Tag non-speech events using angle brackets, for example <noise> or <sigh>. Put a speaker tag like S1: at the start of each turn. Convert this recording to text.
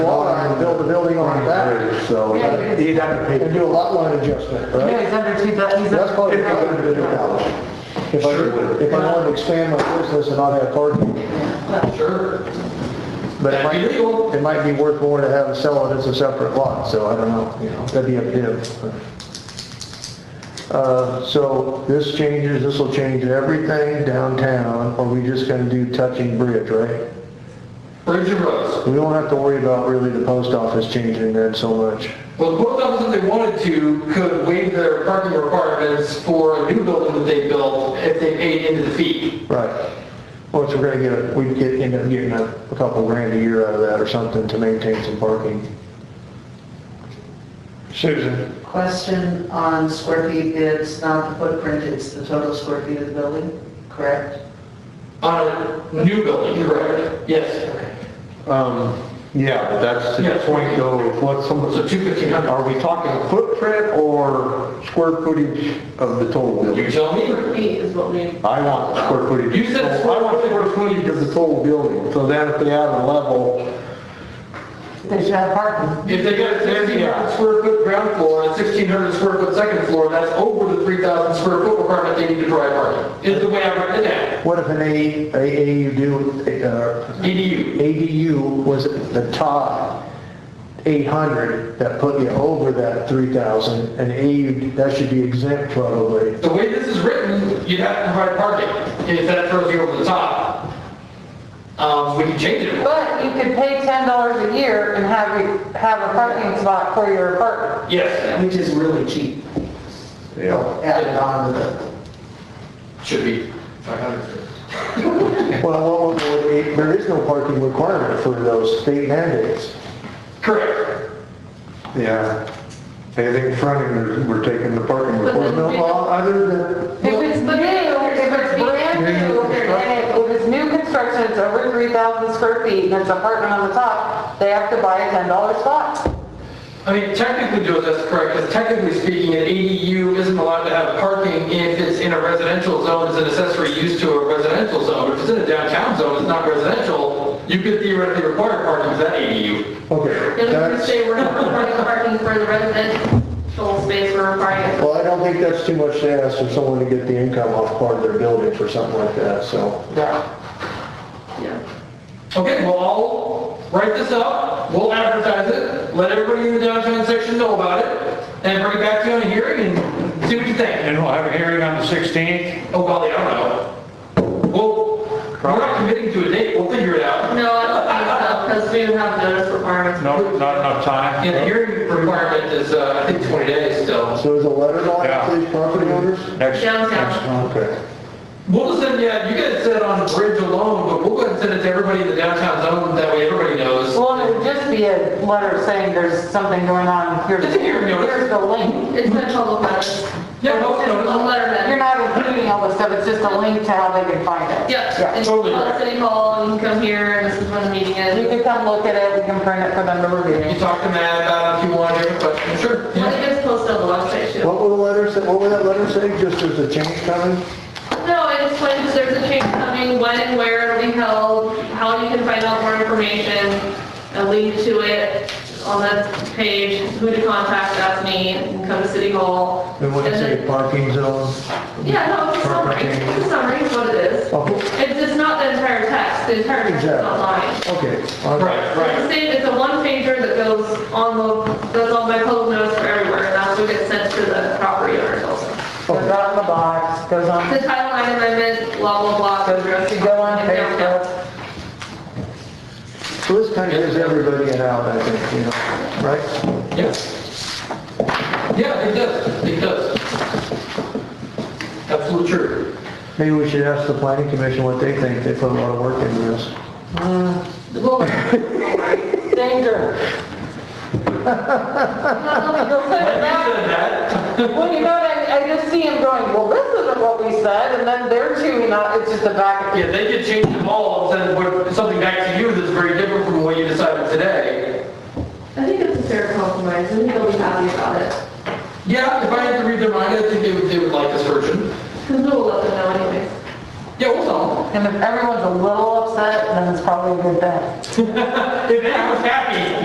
S1: build the building on that, so,
S2: Yeah.
S1: and
S3: uh, He'd have to pay.
S1: do a lot line adjustment, right?
S2: Yeah, he's under two, thou- he's
S1: That's probably
S2: under.
S1: a good dollars. If I, if I wanted to expand my business and not have parking,
S4: Sure.
S1: but it
S4: That'd be legal.
S1: might, it might be worth more to have it sell it as a separate lot, so I don't know, you know, that'd be up to him. Uh, so this changes, this will change everything downtown, or we just gonna do touching bridge, right?
S4: Bridge and roads.
S1: We won't have to worry about really the post office changing that so much.
S4: Well, the post office, if they wanted to, could waive their parking requirements for a new building that they built if they paid into the fee.
S1: Right. Well, so we're gonna get, we get, end up getting a a couple grand a year out of that or something to maintain some parking. Susan?
S5: Question on square feet, it's not the footprint, it's the total square feet of the building, correct?
S4: On a new building, correct? Yes.
S3: Um, yeah, but that's the
S4: Yeah.
S3: point though, is what someone,
S4: So two fifteen hundred.
S3: are we talking footprint or square footage of the total
S4: You
S3: building?
S4: tell me.
S2: Square feet is what we,
S3: I want the square footage.
S4: You said
S3: So I want the square footage of the total building, so then if they add a level,
S2: they should have parking.
S4: If they got a sixteen hundred square foot ground floor and a sixteen hundred square foot second floor, that's over the three thousand square foot requirement they need to drive parking, is the way I read it now.
S1: What if an A, A, AUD, uh,
S4: EDU.
S1: ADU was the top 800 that put you over that 3,000? And AUD, that should be exempt
S4: <laughs>
S1: probably.
S4: The way this is written, you'd have to provide parking if that throws you over the top. Um, we can change it.
S2: But you could pay ten dollars a year and have, a- have a parking spot for your apartment.
S4: Yes,
S5: Which is really cheap,
S3: yeah.
S5: added on to the,
S4: should be five hundred.
S1: Well, well, well, it- there is no parking requirement for those state mandates.
S4: Correct.
S3: Yeah. Anything fronting, we're taking the parking
S1: There's
S3: requirement.
S1: no law other than,
S2: If it's new, if it's brand new, and it- if it's new construction, it's over three thousand square feet, and it's apartment on the top, they have to buy a ten dollar spot.
S4: I mean, technically, Joe, that's correct, because technically speaking, an ADU isn't allowed to have parking if it's in a residential zone, as an accessory use to a residential zone. If it's in a downtown zone, it's not residential, you could theoretically require parking for that ADU.
S1: okay,
S6: You're looking to
S1: that's,
S6: say we're not providing parking for the residential space, we're requiring it for
S1: well, I don't think that's too much to ask for someone to get the income off part of their building for something like that, so.
S4: Okay, well, I'll write this up, we'll advertise it, let everybody in the downtown section know about it, and bring it back to you on a hearing and see what you think.
S7: And we'll have a hearing on the 16th?
S4: Oh, golly, I don't know. Well, we're not committing to a date, we'll figure it out.
S6: No, I don't think so, because we don't have notice requirements.
S7: No, not enough time?
S4: Yeah, the hearing requirement is, uh, I think 20 days still.
S1: So is a letter going
S7: Yeah.
S1: out to these property owners?
S7: Next,
S6: Downtown.
S7: next month.
S1: Okay.
S4: We'll just send, yeah, you guys said on bridge alone, but we'll go ahead and send it to everybody in the downtown zone, that way everybody knows.
S2: Well, it would just be a letter saying there's something going on, here's,
S4: It's a hearing notice.
S2: here's the link.
S6: It's been public notice.
S4: Yeah, public notice.
S6: A letter
S2: You're
S6: that.
S2: not including all this stuff, it's just a link to how they can find it.
S6: Yep, it's
S4: totally
S6: on
S4: right.
S6: City Hall, and you can come here, and this is when the meeting
S2: You
S6: is.
S2: can come look at it, you can print it for them to
S4: You
S2: review.
S4: talk to Matt about it if you want, if but sure.
S6: I
S4: yeah.
S6: think it's posted on the website, too.
S1: What will the letter say, what will that letter say, just there's a change coming?
S6: No, it explains there's a change coming, when and where it'll be held, how you can find out more information, a link to it on the page, who to contact, that's me, and come to City Hall.
S1: We want to
S6: And
S1: say
S6: then-
S1: parking zone?
S6: Yeah, no, it's a summary, it's a summary, it's what it is.
S1: Oh,
S6: It's, it's not the entire text, the entire text is
S1: Exactly.
S6: online.
S1: Okay.
S4: Right,
S6: It's
S4: right.
S6: the same, it's a one pager that goes on the, that's on my public notice for everywhere, and that's what gets sent to the property owners also.
S2: Goes out in the box, goes on,
S6: The Title IX amendment, blah, blah, blah.
S2: goes, you go on Facebook.
S1: So this kind of gives everybody an out, I think, you know, right?
S4: Yeah. Yeah, it does, it does. Absolutely true.
S1: Maybe we should ask the planning commission what they think, they put a lot of work into this.
S2: <laughs> Danger.
S4: I said that.
S2: Well, you know, what, I, I just see him going, well, this isn't what we said, and then they're chewing on, it's just a back.
S4: Yeah, they could change the law and send what- something back to you that's very different from what you decided today.
S6: I think it's a fair compromise, I think they'll be happy about it,
S4: Yeah, if I had to read their mind, I think they would, they would like this version.
S6: because we'll let them know anyways.
S4: Yeah, we'll tell them.
S2: And if everyone's a little upset, then it's probably a good thing.
S4: If anyone's happy,